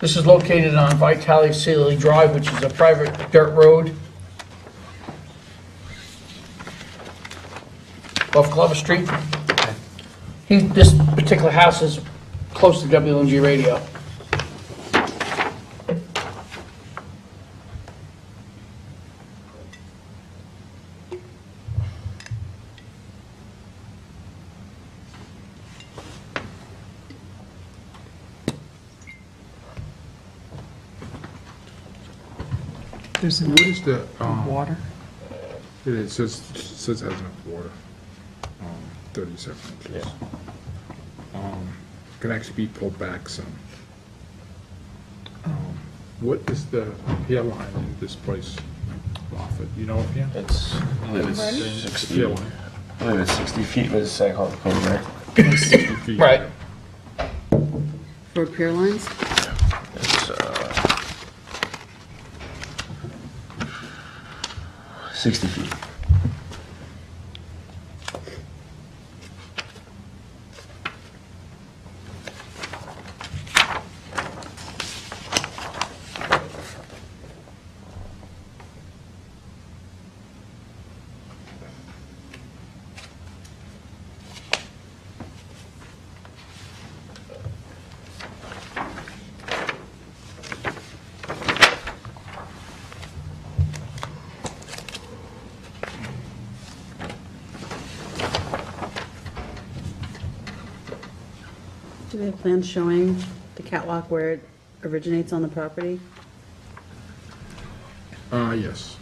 This is located on Vitale Sealy Drive, which is a private dirt road off Glover Street. He, this particular house is close to WLNG radio. There's What is the, um, water. it is, says, says has enough water, um, thirty-seven inches. Um, Can actually be pulled back some. Um, What is the hair line in this place, Moffett, you know, yeah? It's, I believe it's sixty, Hair I line. believe it's sixty feet, but it's Sag Harbor Code, right? 60 feet. Right. For pier lines? It's, uh, sixty feet. Do we have plans showing the catwalk where it originates on the property? Uh, yes.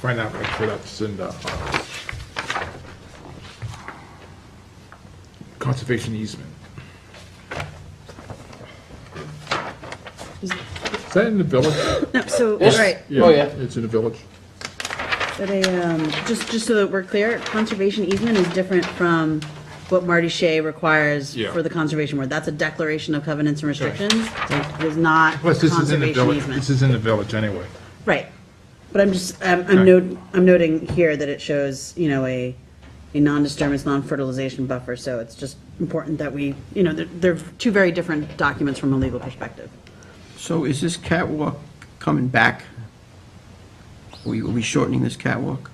Find out, make sure that's in the, uh, conservation easement. Is- Is that in the village? No, so, This- right, Oh, yeah. It's in the village. but a, um, just, just so that we're clear, conservation easement is different from what Marty Shea requires Yeah. for the conservation board. That's a declaration of covenants and restrictions. It is not Plus, this is in the conservation village, this easement. is in the village anyway. Right. But I'm just, I'm, I'm Okay. note, I'm noting here that it shows, you know, a, a non-disturbance, non-fertilization buffer. So it's just important that we, you know, they're, they're two very different documents from a legal perspective. So is this catwalk coming back? Are we, are we shortening this catwalk?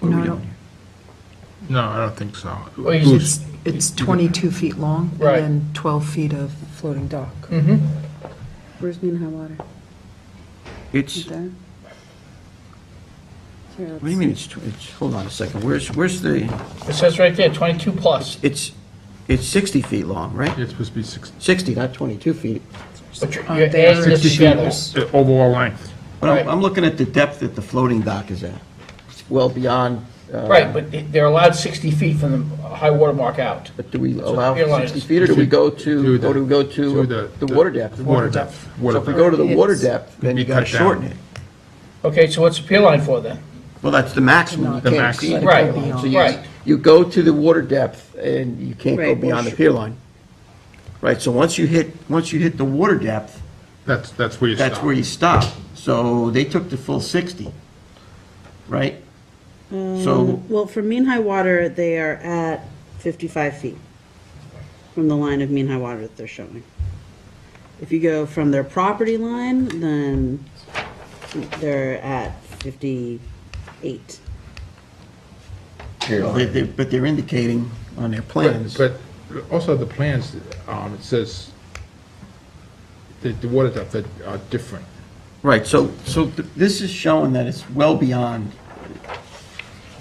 Or we No, I don't? don't- No, I don't think so. Well, you Bruce, It's, it's 22 feet long and Right. then 12 feet of floating dock. Where's mean high water? It's, Right what there? Here, do you mean it's, tw- it's, hold on a second, where's, where's the, It says right there, 22 plus, it's, it's 60 feet long, right? It's supposed to be six, 60, not 22 feet. but you're Uh, you're they adding this are together. uh, overall length. But Right. I'm, I'm looking at the depth that the floating dock is at. It's well beyond. uh, Right, but they- they're allowed 60 feet from the high water mark out. But do we pier allow lines. 60 feet, or do we go to, or do we go to the water depth? The water depth. So water if we depth. go to the water It's- depth, then Be you gotta cut down. shorten it. Okay, so what's the pier line for then? Well, that's the maximum. You The can't maximum. exceed the Right, pier line. So you- right. You go to the water depth and you can't go Right. beyond the pier line. Right, so once you hit, once you hit the water depth, That's, that's where you stop. that's where you stop. So they took the full 60, right? So, Well, for mean high water, they are at 55 feet from the line of mean high water that they're showing. If you go from their property line, then they're at 58. Mm. they- they- but they're indicating on their plans. But but also the plans, um, it says that the water depth that are different. Right, so, so th- this is showing that it's well beyond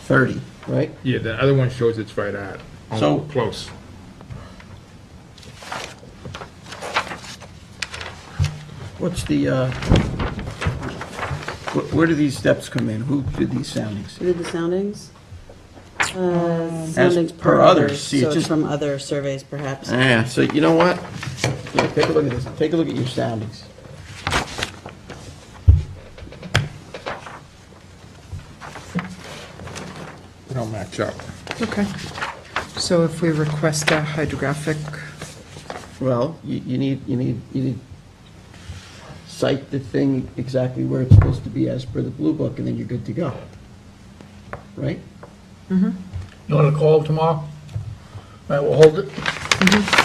30, right? Yeah, the other one shows it's right at, um, So- close. What's the, uh, wh- where do these steps come in? Who did these soundings? Who did the soundings? Uh, Soundings Um, per per others, others, see, it so it's just- from other surveys perhaps. Yeah, so you know what? Here, Take a look at this, take a look at your soundings. They don't match up. Okay. So if we request a hydrographic, Well, you, you need, you need, you need, cite the thing exactly where it's supposed to be as per the blue book, and then you're good to go. Right? You want to call tomorrow? All right, we'll hold it.